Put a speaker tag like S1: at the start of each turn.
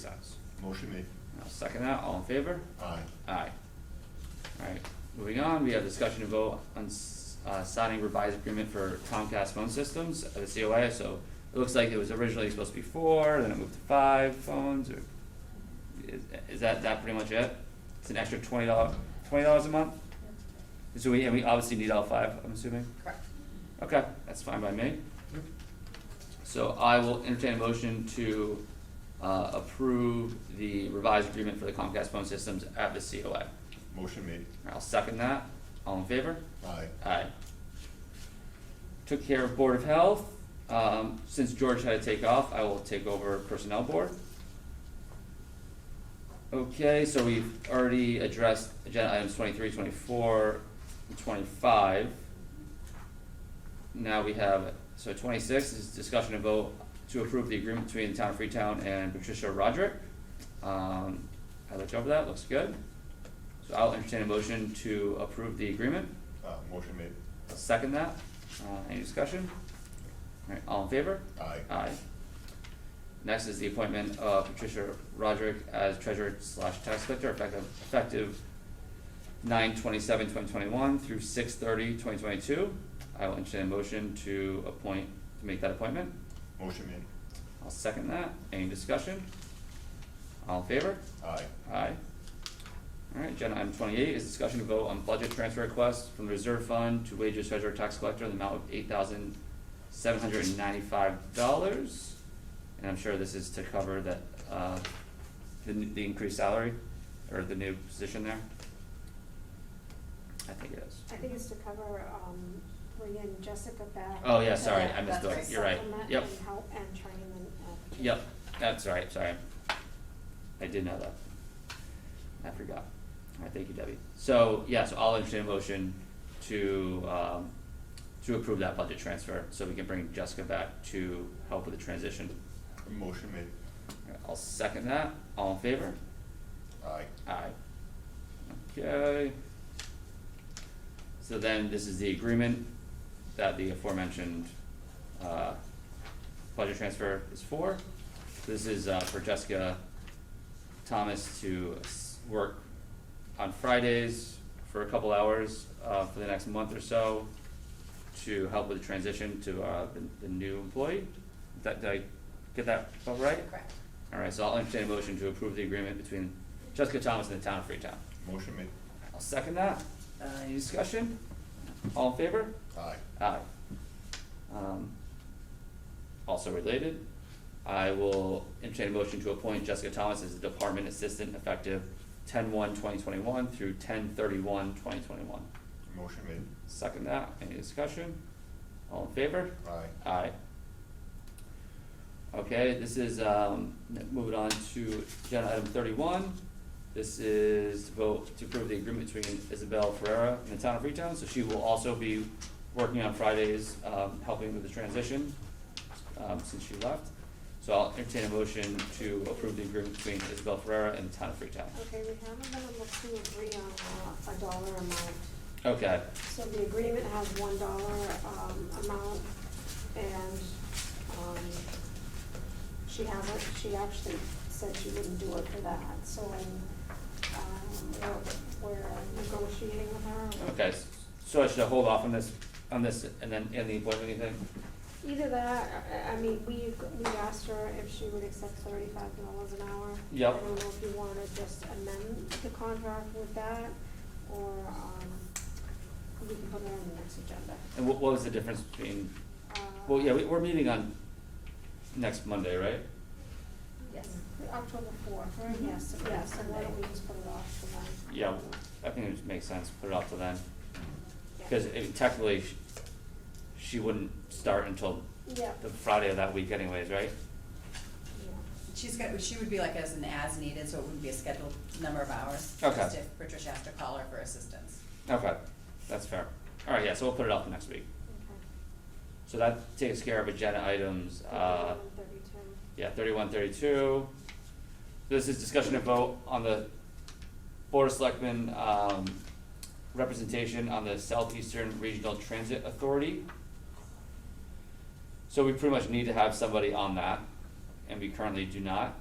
S1: cents.
S2: Motion made.
S1: I'll second that, all in favor?
S2: Aye.
S1: Aye. Alright, moving on, we have discussion and vote on, s- uh, signing revised agreement for Comcast phone systems, uh, the COA, so it looks like it was originally supposed to be four, then it moved to five phones, or is, is that, that pretty much it? It's an extra twenty dollar, twenty dollars a month? So we, and we obviously need all five, I'm assuming?
S3: Correct.
S1: Okay, that's fine by me. So I will entertain a motion to uh, approve the revised agreement for the Comcast phone systems at the COA.
S2: Motion made.
S1: I'll second that. All in favor?
S2: Aye.
S1: Aye. Took care of Board of Health. Um, Since George had to take off, I will take over Personnel Board. Okay, so we've already addressed agenda items 23, 24, and 25. Now we have, so 26 is discussion and vote to approve the agreement between the Town of Freetown and Patricia Roderick. Um, I looked over that, looks good. So I'll entertain a motion to approve the agreement.
S2: Uh, motion made.
S1: I'll second that. Uh, any discussion? Alright, all in favor?
S2: Aye.
S1: Aye. Next is the appointment of Patricia Roderick as treasurer slash tax collector effective, effective nine twenty-seven, twenty twenty-one through six thirty, twenty twenty-two. I will entertain a motion to appoint, to make that appointment.
S2: Motion made.
S1: I'll second that. Any discussion? All in favor?
S2: Aye.
S1: Aye. Alright, agenda item twenty-eight is discussion to vote on budget transfer request from the reserve fund to wages treasurer tax collector in the amount of eight thousand seven hundred and ninety-five dollars. And I'm sure this is to cover that, uh, the, n- the increased salary, or the new position there? I think it is.
S4: I think it's to cover, um, bring in Jessica back.
S1: Oh, yeah, sorry,
S3: Yeah,
S1: I missed
S3: that's
S1: it,
S3: right.
S1: you're right,
S4: Supplement
S1: yep.
S4: and help and training and. uh,
S1: Yep, that's right, sorry. I did know that. I forgot. Alright, thank you, Debbie. So, yeah, so I'll entertain a motion to, um, to approve that budget transfer, so we can bring Jessica back to help with the transition.
S2: Motion made.
S1: Alright, I'll second that, all in favor?
S2: Aye.
S1: Aye. Okay. So then this is the agreement that the aforementioned, uh, budget transfer is for. This is, uh, for Jessica Thomas to s- work on Fridays for a couple hours, uh, for the next month or so to help with the transition to, uh, the, the new employee. Did that- did I get that about right?
S3: Correct.
S1: Alright, so I'll entertain a motion to approve the agreement between Jessica Thomas and the town of Freetown.
S2: Motion made.
S1: I'll second that. Uh, any discussion? All in favor?
S2: Aye.
S1: Aye. Um, also related, I will entertain a motion to appoint Jessica Thomas as the department assistant effective 10-1-2021 through 10-31-2021.
S2: Motion made.
S1: Second that. Any discussion? All in favor?
S2: Aye.
S1: Aye. Okay, this is, um, moving on to agenda item thirty-one. This is to vote to approve the agreement between Isabel Ferreira and the town of Freetown, so she will also be working on Fridays, um, helping with the transition, um, since she left. So I'll entertain a motion to approve the agreement between Isabel Ferreira and the town of Freetown.
S4: Okay, we haven't been able to agree on uh, a dollar amount.
S1: Okay,
S4: So the agreement has one dollar, um, amount and, um, she hasn't, she actually said she wouldn't do it for that, so, um, we're, we're negotiating with her.
S1: okay, s- so I should hold off on this, on this, and then, and the appointment thing?
S4: Either that, I, I mean, we, we asked her if she would accept thirty-five dollars an hour.
S1: Yep.
S4: I don't know if you wanna just amend the contract with that, or, um, we can put that on the next agenda.
S1: And what, what was the difference between
S4: Uh,
S1: Well, yeah, we, we're meeting on next Monday, right?
S3: Yes.
S4: October fourth, right? yes, yes, so why don't we just put it off to then?
S1: Yeah, I think it just makes sense, put it off to then,
S4: Yeah.
S1: because it- technically, sh- she wouldn't start until
S4: Yeah,
S1: the Friday of that week anyways, right?
S4: yeah,
S3: She's got, she would be like as an as needed, so it wouldn't be a scheduled number of hours.
S1: Okay.
S3: Just if Patricia has to call her for assistance.
S1: Okay, that's fair. All right, yeah, so we'll put it off to next week. So that takes care of agenda items,
S4: okay.
S1: uh,
S4: 31,
S1: yeah, thirty-one, thirty-two. This is discussion and vote on the Board of Selectmen, um, representation on the Southeastern Regional Transit Authority. So we pretty much need to have somebody on that, and we currently do not.